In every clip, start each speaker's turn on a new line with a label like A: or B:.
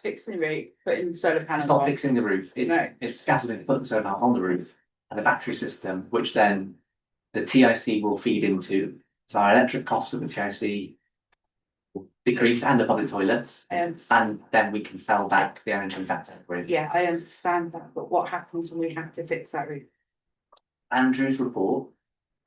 A: fixing the rate, but instead of
B: It's
A: panel
B: not
A: one.
B: fixing the roof, it's,
A: No.
B: it's scattered in putting sonar on the roof and a battery system, which then the TIC will feed into. So our electric costs of the TIC will decrease and the public toilets,
A: I understand,
B: and then we can sell back the energy back to the grid.
A: yeah, I understand that, but what happens when we have to fix that roof?
B: Andrew's report,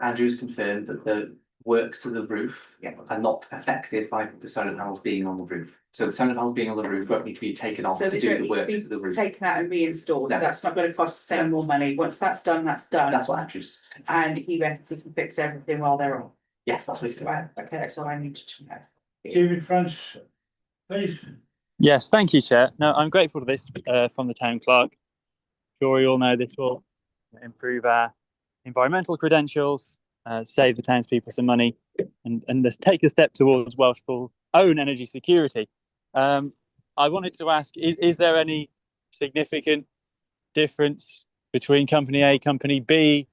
B: Andrew's confirmed that the works to the roof
A: Yeah.
B: are not affected by the solar panels being on the roof. So the solar panels being on the roof won't need to be taken off
A: So
B: to
A: they
B: do
A: don't
B: the
A: need to
B: work
A: be
B: to the roof.
A: Taken out and reinstalled,
B: No.
A: that's not gonna cost the same more money, once that's done, that's done,
B: That's what Andrew's,
A: and he reckons he can fix everything while they're on.
B: yes, that's what he's doing.
A: Right, okay, so I need to know.
C: David France, please.
D: Yes, thank you, Chair. No, I'm grateful for this uh, from the town clerk. Sure, you all know this will improve our environmental credentials, uh, save the townspeople some money, and and just take a step towards Welsh full own energy security. Um, I wanted to ask: is, is there any significant difference between company A, company B?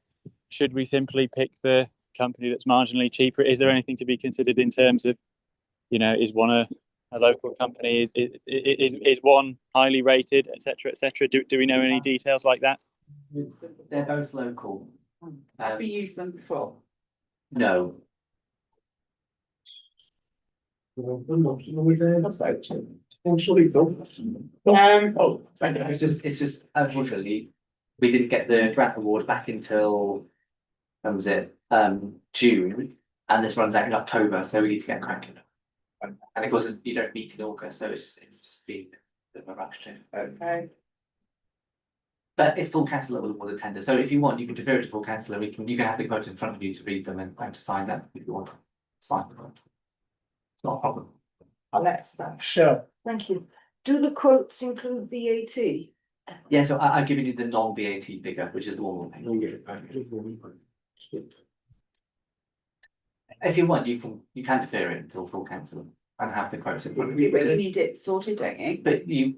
D: Should we simply pick the company that's marginally cheaper? Is there anything to be considered in terms of, you know, is one a a local company is is is, is one highly rated, etc., cetera, etc. Cetera. Do do we know any details like that?
B: They're both local.
A: Have you used them before?
B: No,
A: Um,
C: Oh, thank
B: it's just, it's just, unfortunately, we didn't get the grant award back until, when was it, um, June? And this runs out in October, so we need to get cracking. And of course, it's- you don't meet in August, so it's just, it's just been a bit of a rush to.
A: okay,
B: But it's full council that will award the tender, so if you want, you can defer it to full council, and we can, you can have the quote in front of you to read them and and to sign them if you want. to Sign the quote. It's not a problem. Mm.
A: I'll let that.
C: So,
E: Thank you. Do the quotes include VAT?
B: Yeah, so I, I've given you the non-VAT figure, which is the one. we'll pay. If you want, you can, you can defer it until full council and have the quotes in front of
A: You
B: you,
A: really
B: because-
A: need it sorted, don't you?
B: but you.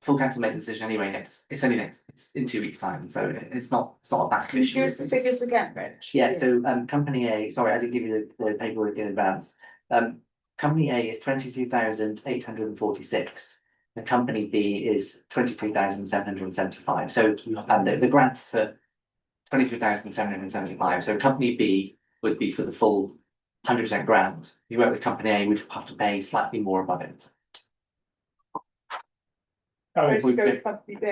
B: Full council make the decision anyway next, it's only next, it's in two weeks' time, so it- it's not, it's not a massive
A: Can you
B: issue.
A: give us the figures again, Rich?
B: Yeah, so um company A, sorry, I didn't give you the the paperwork in advance. Um company A is twenty two thousand eight hundred and forty six. And company B is twenty three thousand seven hundred and seventy five, so and the the grants for twenty three thousand seven hundred and seventy five, so company B would be for the full hundred percent grant. If You work with company A, we'd have to pay slightly more above it.
C: Oh, I
A: Let's
B: we've
A: go
B: been-
A: company B.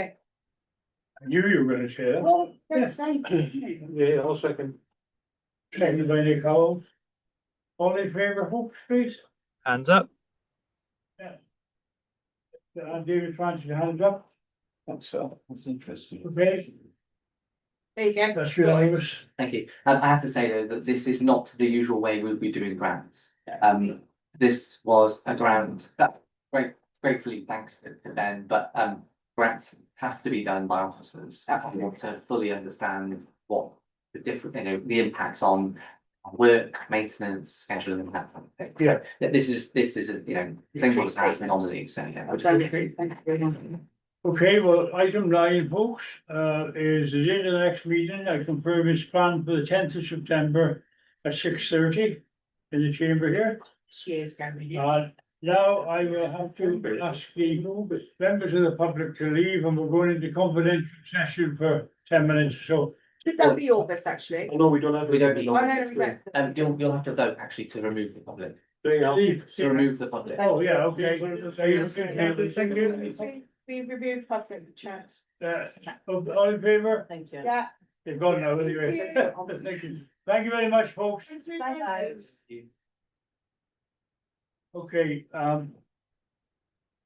C: knew you were gonna say that.
A: Well, that's nice.
C: Yeah, I'll second. Second by Nick Howells. All in favor, Hawks, please?
D: Hands up.
C: And David France, your hands up.
B: That's uh, that's interesting.
C: Okay,
A: There you go.
C: that's unanimous.
B: Thank you. Um, I have to say though, that this is not the usual way we'll be doing grants.
A: Yeah.
B: Um, this was a grant that, great, gratefully thanks to to Ben, but um, grants have to be done by officers. If you want to fully understand what the different, you know, the impacts on work, maintenance, scheduling and that kind of thing. So th- This is, this is, a, you know, same sort of as an anomaly, so yeah.
A: Thank you very much.
C: Okay, well, item nine, folks, uh, is the date of the next meeting, I confirm it's planned for the tenth of September at six thirty in the chamber here.
A: Cheers, Gary.
C: Uh, now I will have to ask the members of the public to leave and we're going into confidential session for ten minutes or so.
A: Should that be
C: oh,
A: August, actually?
F: No, we don't have.
B: We don't need
A: Oh, no, we
B: long.
A: won't.
B: Um, you'll, you'll have to vote actually to remove the public,
C: Leave.
B: to remove the public.
C: Oh, yeah, okay. So you can have the thing in.
A: We we removed public chat.
C: Uh, All in favor?
E: Thank you.
A: Yeah.
C: You've gone now anyway. Thank you. Thank you very much, folks.
E: Bye-bye.
C: Okay, um,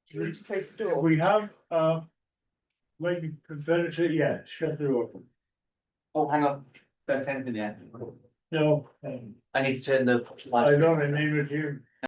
A: Do you need to close the door?
C: we have, uh, maybe Confederacy, yeah, shut the door.
B: Oh, hang on, don't send anything yet.
C: No, um,
B: I need to turn the.
C: I don't remember you.